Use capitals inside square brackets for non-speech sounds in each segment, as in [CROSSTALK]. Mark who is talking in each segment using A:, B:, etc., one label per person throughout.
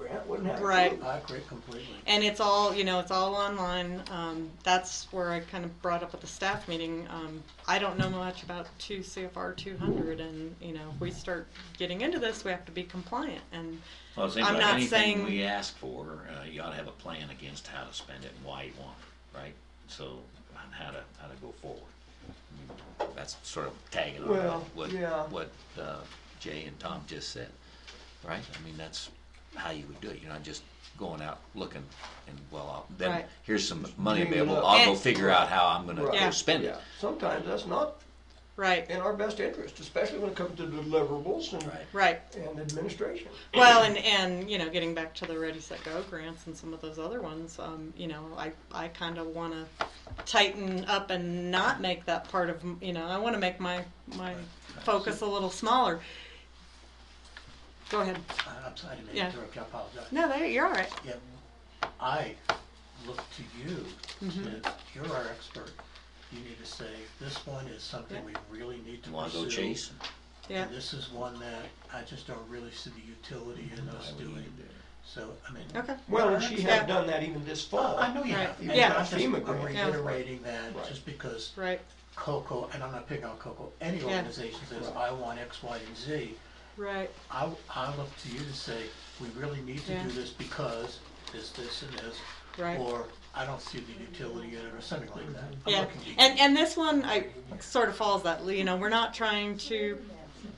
A: couldn't happen.
B: Right.
A: I agree completely.
B: and it's all you know it's all online um, that's where i kind of brought up at the staff meeting um, i don't know much about 2 cfr 200 and you know if we start getting into this we have to be compliant and
C: Well, it seems
B: I'm
C: like
B: not
C: anything
B: saying-
C: we ask for, uh, you ought to have a plan against how to spend it and why you want it, right? So, on how to, how to go forward. I mean, That's sort of tagging on
A: Well,
C: what,
A: yeah.
C: what, uh, Jay and Tom just said, right? I mean, that's how you would do it, you're not just going out looking and, well, I'll- then,
B: Right.
C: here's some money
A: dream it
C: available,
A: up.
C: I'll go
B: And-
C: figure out how I'm gonna
A: Right.
C: go
B: Yeah.
C: spend it.
A: Yeah. Sometimes that's not
B: right
A: in our best interest, especially when it comes to deliverables and,
C: Right.
B: right
A: and administration.
B: well and and you know getting back to the ready set go grants and some of those other ones um, you know i i kind of want to tighten up and not make that part of m- you know i want to make my my focus a little smaller go ahead
A: I'm sorry to
B: Yeah.
A: interrupt, I apologize.
B: no there you're all right
A: Yeah, I look to you,
B: Mm-hmm.
A: to- you're our expert. You need to say, this one is something we
B: Yeah.
A: really need to
C: You wanna go
A: pursue.
C: chase?
B: yeah
A: And this is one that I just don't really see the utility in
C: Mm-hmm. Why
A: us
C: would you
A: doing,
C: do it?
A: so, I mean.
B: okay
D: Well, and she
B: Yeah.
D: had done that even this fall.
A: I know you
B: Right.
A: have.
B: Yeah.
A: and
B: Yeah.
A: I'm just-
D: FEMA
A: I'm
D: grant.
B: Yeah.
A: reiterating that,
D: Right.
A: just because
B: right
A: COCO, and I'm not picking on COCO, any
B: Yeah.
A: organization says, I want X, Y, and Z,
B: Right,
A: I, I look to you to say, we really need to
B: Yeah.
A: do this because this, this, and this.
B: Right.
A: Or I don't see the utility in it, or something like that. I'm
B: yeah.
A: looking to you.
B: And, and this one, I, sort of falls that, you know, we're not trying to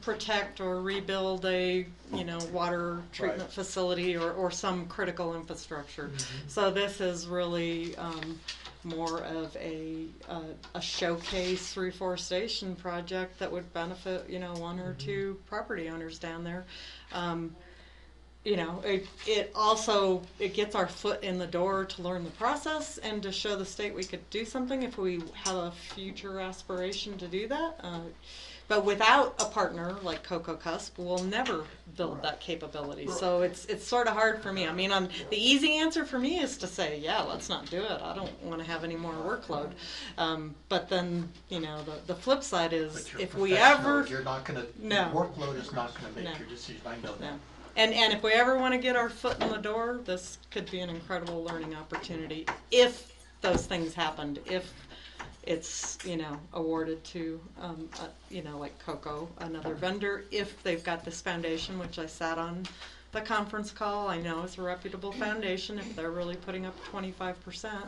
B: protect or rebuild a, you know, water treatment facility or, or some critical infrastructure.
A: Mm-hmm.
B: So this is really, um, more of a, uh, a showcase reforestation project that would benefit, you know, one
A: Mm-hmm.
B: or two property owners down there. Um, you know, it, it also, it gets our foot in the door to learn the process and to show the state we could do something if we have a future aspiration to do that. Uh, but without a partner like Coco Cusp, we'll never build that capability. So it's, it's sort of hard for me. I mean, i the easy answer for me is to say, yeah, let's not do it. I don't want to have any more workload. Um, but then, you know, the, the flip side is
A: But you're
B: if we
A: professional,
B: ever
A: You're not gonna,
B: No.
A: workload is not gonna
B: No.
A: make your decision, I know that.
B: no. And, and if we ever want to get our foot in the door, this could be an incredible learning opportunity if those things happened, if it's, you know, awarded to, um, uh, you know, like Coco, another vendor, if they've got this foundation, which I sat on the conference call, I know it's a reputable foundation, if they're really putting up twenty-five percent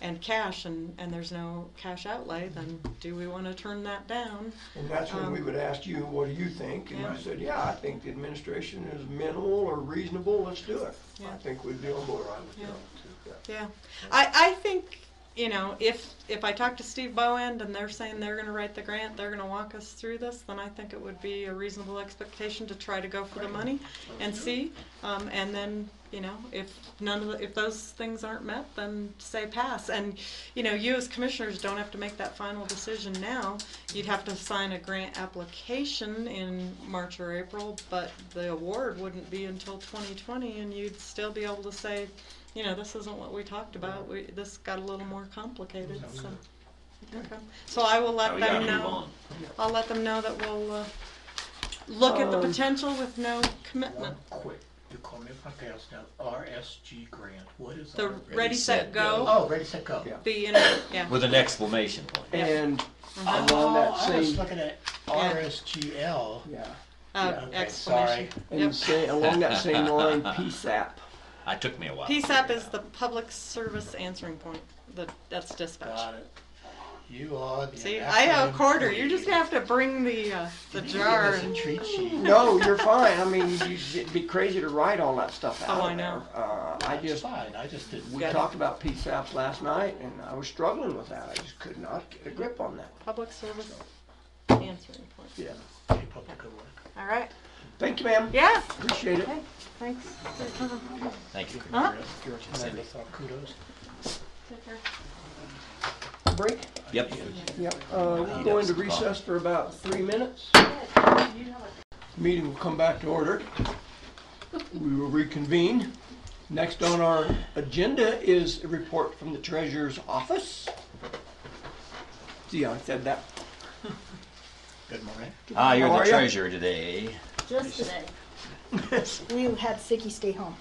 B: and cash and, and there's no cash outlay, then do we want to turn that down?
D: And that's when we
B: Um,
D: would ask you, what do you think? And
B: Yeah.
D: you said, yeah, I think the administration is minimal or reasonable, let's do it. I
B: Yeah.
D: think we'd be on board.
A: Or I would
B: Yeah.
A: go to-
B: Yeah, I, I think, you know, if, if I talk to Steve Bowend and they're saying they're gonna write the grant, they're gonna walk us through this, then I think it would be a reasonable expectation to try to go for the money and see. Um, and then, you know, if none of the, if those things aren't met, then say pass. And, you know, you as commissioners don't have to make that final decision now. You'd have to sign a grant application in March or April, but the award wouldn't be until twenty twenty and you'd still be able to say, you know, this isn't what we talked about, we, this got a little more complicated, so. Okay, so I will
C: Now
B: let
C: we gotta
B: them
C: move
B: know,
C: on.
B: I'll let them know that we'll, uh, look at the
A: Uh,
D: Um,
B: potential with no commitment.
A: One quick, you call me if I pass now, RSG grant, what is
B: The
A: RSG?
B: Ready, Set, Go,
A: Oh, ready, set, go.
D: Yeah.
B: be in, it, yeah,
C: With an exclamation point.
B: Yeah. Mm-hmm.
D: And
A: Oh,
B: Uh-huh.
D: along that
A: I was
D: same,
A: looking at RSGL.
D: yeah,
B: uh,
A: Okay,
B: exclamation. Yep.
D: and say, along that [LAUGHS] same line, PSAP.
C: I took me a while. to figure
B: PSAP
C: it
B: is
C: out.
B: the public service answering point, that, that's dispatch.
A: Got it. You are the.
B: See, I have a
A: acronym
B: quarter,
A: queen.
B: you're just gonna have to bring the, uh, the
A: You give
B: jar
A: us a
B: and,
A: treat sheet.
D: No, you're fine. I mean, you- it'd be crazy to write all that stuff out
B: Oh, I
D: of there.
B: know.
D: Uh, I
A: That's
D: just,
A: fine, I just didn't.
D: we
B: Got it.
D: talked about PSAPs last night and I was struggling with that. I just could not get a grip on that.
B: public service answering point,
D: Yeah.
A: Keep up the good work.
B: all right,
D: Thank you, ma'am.
B: yeah,
D: Appreciate it.
B: okay, thanks.
C: Thank you.
B: Huh?
A: You're a tremendous, uh, kudos.
B: Take care.
D: Break.
C: Yep.
D: Yep, uh, we'll go into recess for about three minutes. Meeting will come back to order. We will reconvene. Next on our agenda is a report from the treasurer's office. See, I said that. [LAUGHS]
A: Good morning.
C: Ah, you're
D: How
C: the
D: are ya?
C: treasurer today.
E: Just today. We had Sicky stay home.